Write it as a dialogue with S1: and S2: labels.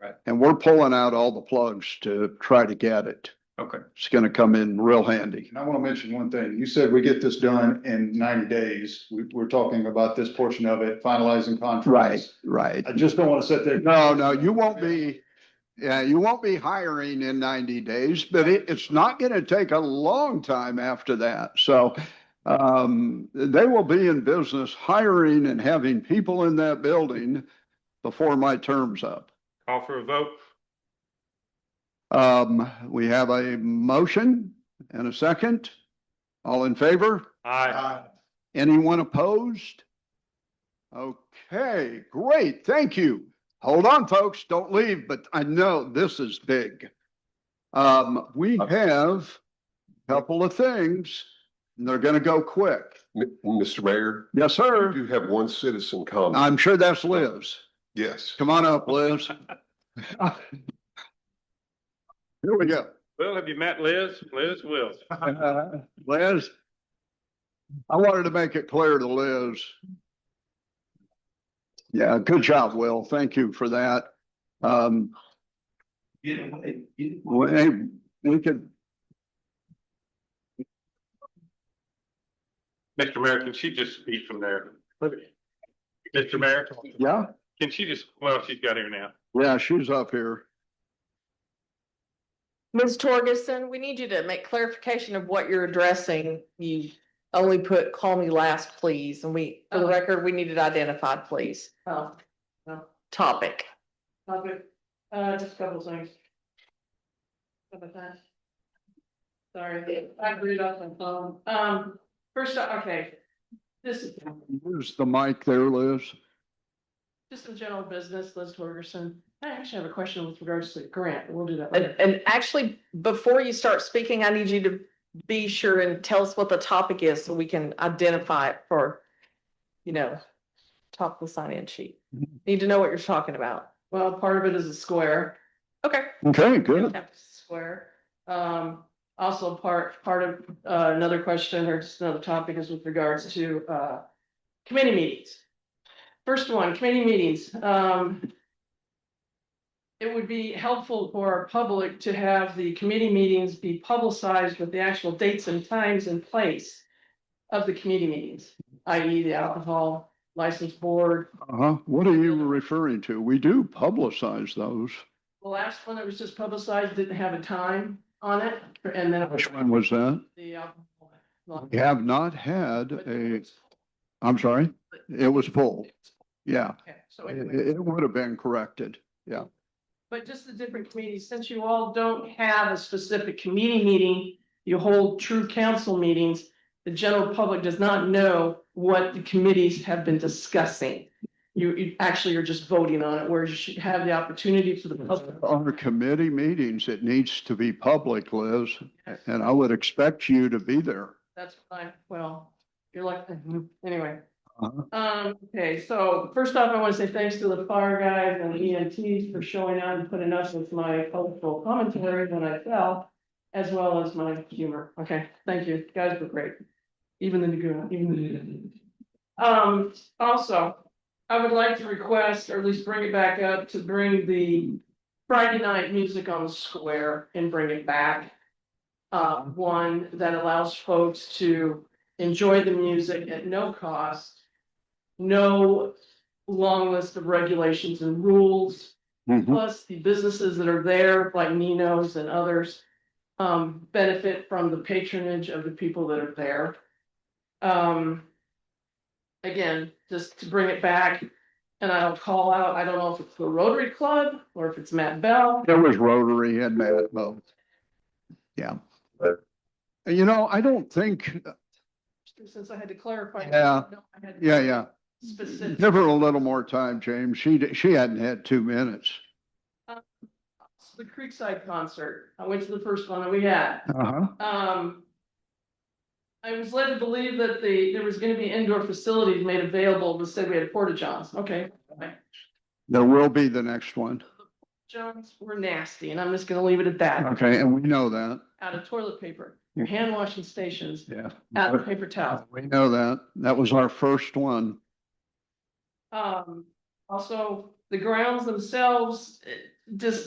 S1: Right.
S2: And we're pulling out all the plugs to try to get it.
S1: Okay.
S2: It's gonna come in real handy. And I wanna mention one thing. You said we get this done in ninety days. We, we're talking about this portion of it, finalizing contracts. Right, right. I just don't wanna sit there. No, no, you won't be, yeah, you won't be hiring in ninety days, but it, it's not gonna take a long time after that. So um, they will be in business hiring and having people in that building before my term's up.
S3: Call for a vote.
S2: Um, we have a motion and a second. All in favor?
S3: Aye.
S2: Anyone opposed? Okay, great. Thank you. Hold on, folks. Don't leave, but I know this is big. Um, we have a couple of things and they're gonna go quick.
S4: M- Mr. Mayor,
S2: Yes,
S4: I
S2: sir.
S4: do have one citizen comment.
S2: I'm sure that's Liz.
S4: Yes.
S2: Come on up, Liz. Here we go.
S3: Will, have you met Liz? Liz Wills.
S2: Uh, Liz? I wanted to make it clear to Liz. Yeah, good job, Will. Thank you for that. Um, we, hey, we could,
S3: Mr. Mayor, can she just speak from there? Mr. Mayor,
S2: yeah,
S3: can she just, well, she's got here now.
S2: yeah, she's up here.
S5: Ms. Torgerson, we need you to make clarification of what you're addressing. You only put, call me last, please, and we, for the record, we need it identified, please.
S6: Oh, well,
S5: Topic.
S6: okay, uh, just a couple things. Couple things. Sorry, I read off my phone, um, first, okay. This is
S2: Use the mic there, Liz.
S6: just a general business, Liz Torgerson, I actually have a question with regards to the grant, we'll do that
S5: And,
S6: later.
S5: and actually, before you start speaking, I need you to be sure and tell us what the topic is so we can identify it for, you know, top of the sign-in sheet. Need to know what you're talking about.
S6: Well, part of it is a square.
S5: Okay.
S2: Okay, good.
S6: Templeton Square. Um, also part, part of, uh, another question or just another topic is with regards to, uh, committee meetings. First one, committee meetings, um. It would be helpful for our public to have the committee meetings be publicized with the actual dates and times and place of the committee meetings, i.e. the alcohol license board.
S2: Uh-huh. What are you referring to? We do publicize those.
S6: The last one that was just publicized didn't have a time on it, and then. it was-
S2: Which one was that?
S6: the um, alcohol.
S2: We have not had a, I'm sorry, it was pulled. Yeah,
S6: Okay, so
S2: it,
S6: anyway,
S2: it would have been corrected.
S6: but just the different committees, since you all don't have a specific committee meeting, you hold true council meetings. The general public does not know what the committees have been discussing. You, you actually are just voting on it, whereas you should have the opportunity for the public.
S2: On our committee meetings, it needs to be public, Liz, and I would expect you to be there.
S6: That's fine, well, you're like, anyway.
S2: Uh-huh.
S6: Um, okay, so first off, I want to say thanks to the fire guys and EMTs for showing up and putting up with my cultural commentary when I fell. As well as my humor, okay, thank you, You guys were great, even the Naguna, even the. Um, also, I would like to request, or at least bring it back up, to bring the Friday night music on the square and bring it back uh, one that allows folks to enjoy the music at no cost. No long list of regulations and rules,
S2: Mm-hmm.
S6: plus the businesses that are there, like Nino's and others. Um, benefit from the patronage of the people that are there. Um. Again, just to bring it back, and I'll call out, I don't know if it's the Rotary Club or if it's Matt Bell.
S2: There was Rotary and Matt both. Yeah. And You know, I don't think,
S6: Since I had to clarify.
S2: Yeah.
S6: no, I had to-
S2: yeah, yeah,
S6: Specific.
S2: give her a little more time, James. She, di- she hadn't had two minutes.
S6: So The Creekside concert, I went to the first one that we had,
S2: Uh-huh.
S6: um. I was led to believe that the, there was gonna be indoor facilities made available, but said we had porta johns, okay.
S2: There will be the next one.
S6: Johns were nasty, and I'm just gonna leave it at that,
S2: Okay, and we know that.
S6: out of toilet paper, your hand washing stations, out
S2: Yeah.
S6: of paper towels.
S2: We know that. That was our first one.
S6: Um, also, the grounds themselves, eh, just